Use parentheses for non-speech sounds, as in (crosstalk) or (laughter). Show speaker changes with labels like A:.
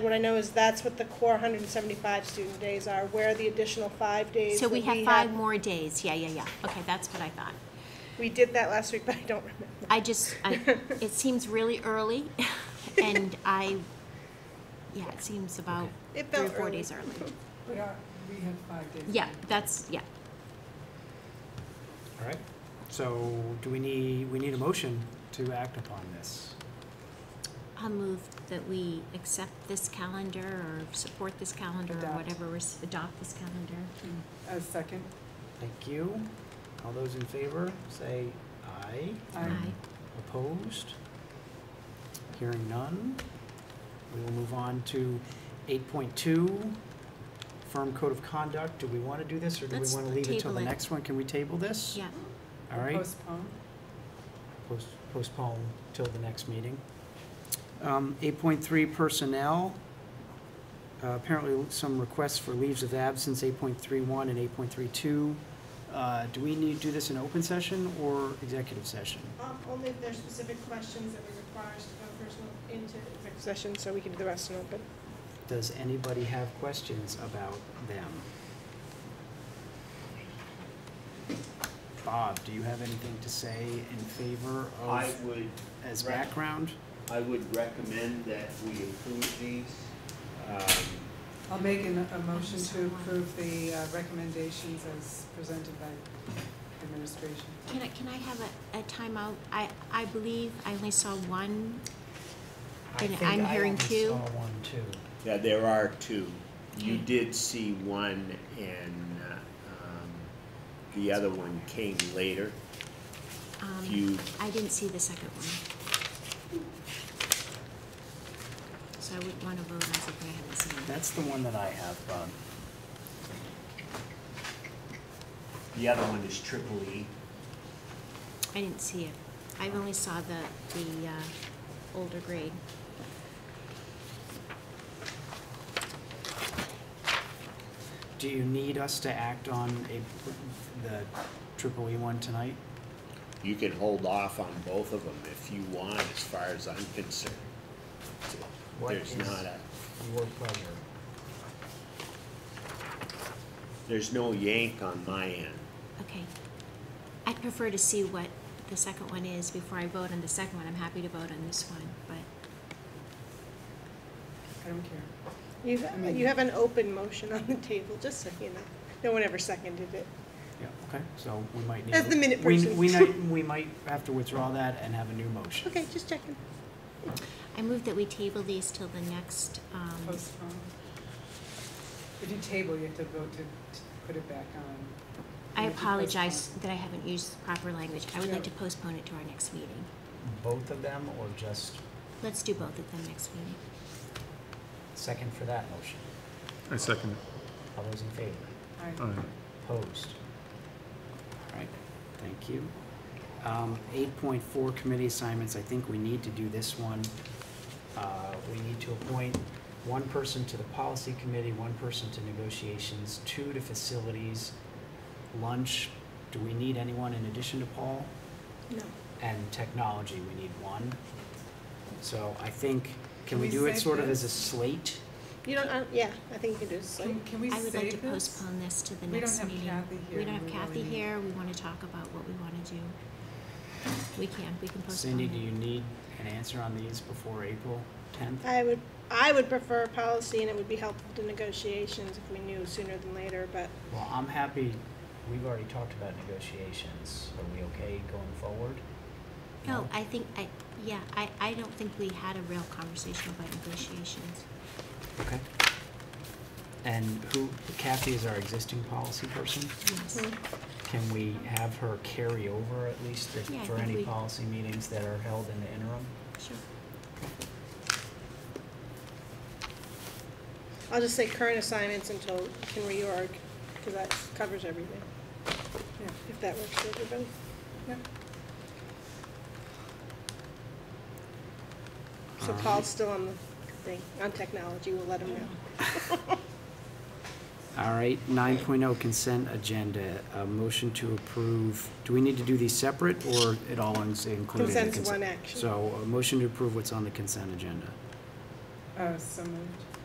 A: What I know is that's what the core 175 student days are, where the additional five days.
B: So
A: that
B: we have
A: had-
B: five more days, yeah, yeah, yeah, okay, that's what I thought.
A: We did that last week, (laughs) but I don't remember.
B: I just, I, it seems really early, (laughs) and I, yeah, it seems about
A: It
B: three or
A: felt
B: four
A: early.
B: days early.
C: But our, we had five days.
B: Yeah, that's, yeah,
D: All right, so do we need, we need a motion to act upon this?
B: I'll move that we accept this calendar, or support this calendar, or
C: Adopt.
B: whatever, we're s- adopt this calendar.
C: A second,
D: Thank you. All those in favor, say aye.
C: I,
B: Aye.
D: Opposed? Hearing none. We will move on to eight point two, firm code of conduct. Do we want to do this, or do we
B: Let's
D: want to leave it till
B: table
D: the
B: it.
D: next one? Can we table this?
B: Yeah,
D: All right,
C: postpone.
D: Post- postpone till the next meeting. Um, eight point three, personnel. Uh, apparently some requests for leaves of absence, eight point three one and eight point three two. Uh, do we need to do this in open session or executive session?
A: Um, Only if there's specific questions that we require us to go personal into executive session, so we can do the rest in open.
D: Does anybody have questions about them? Bob, do you have anything to say in favor
E: I
D: of,
E: would,
D: as background?
E: I would recommend that we approve these. Um,
C: I'll make an- a motion to approve the uh, recommendations as presented by administration.
B: can I, can I have a, a timeout? I, I believe I only saw one, I And think I'm I hearing only two. saw
D: one, two.
E: Yeah, there are two. You
B: Okay.
E: did see one and uh, um, the other one came later. If
B: um,
E: you,
B: I didn't see the second one. So I wouldn't wanna vote as if I hadn't seen it.
D: That's the one that I have, Bob.
E: the other one is triple E.
B: I didn't see it. I only saw the, the uh, older grade.
D: Do you need us to act on a, the triple E one tonight?
E: You can hold off on both of them if you want, as far as I'm concerned.
D: What
E: There's
D: is-
E: not a,
D: Your pleasure.
E: there's no yank on my end.
B: Okay. I'd prefer to see what the second one is before I vote on the second one. I'm happy to vote on this one, but
C: I don't care.
A: You,
C: mean-
A: you have an open motion on the table, just so you know. No one ever seconded it.
D: Yeah, okay, so we might need.
A: As the minute
D: we-
A: person.
D: We might,
A: (laughs)
D: we might have to withdraw that and have a new motion.
A: Okay, just checking.
B: I move that we table these till the next, um,
C: Postpone. If you table, you have to vote to to put it back on.
B: I
C: You have to
B: apologize
C: postpone.
B: that I haven't used the proper language. I would like
C: Yeah.
B: to postpone it to our next meeting.
D: Both of them or just
B: Let's do both of them next meeting.
D: second for that motion?
F: I second it.
D: All those in favor?
C: Aye.
F: Aye.
D: Opposed? All right, thank you. Um, eight point four committee assignments, I think we need to do this one. Uh, we need to appoint one person to the policy committee, one person to negotiations, two to facilities, lunch, do we need anyone in addition to Paul?
A: No.
D: And technology, we need one. So I think, can
C: Can
D: we
C: we
D: do it
C: save
D: sort of
C: this?
D: as a slate?
A: You don't, uh, yeah, I think you can do it. so-
C: Can, can we
B: I would like to
C: save this?
B: postpone this to the
C: We don't
B: next
C: have
B: meeting.
C: Kathy here,
B: We don't have
C: we really
B: Kathy
C: need-
B: here. We wanna talk about what we wanna do. We can, we can postpone it.
D: Cindy, do you need an answer on these before April tenth?
A: I would, I would prefer policy, and it would be helpful to negotiations if we knew sooner than later, but
D: Well, I'm happy, we've already talked about negotiations. Are we okay going forward?
B: No, I think, I, yeah, I, I don't think we had a real conversation about negotiations.
D: Okay. And who, Kathy is our existing policy person.
B: Yes,
A: Mm-hmm.
D: Can we have her carry over at least if-
B: Yeah, I
D: for
B: think
D: any
B: we-
D: policy meetings that are held in the interim?
B: sure.
A: I'll just say current assignments until we can reorg, because that covers everything,
C: Yeah,
A: if that works for everybody.
C: yeah.
A: So
D: Um,
A: Paul's still on the thing, on technology, we'll let him know.
D: All right, nine oh, consent agenda, a motion to approve, do we need to do these separate or it all is included? in
A: Consent's
D: consent?
A: one action.
D: So a motion to approve what's on the consent agenda.
C: Uh, so moved.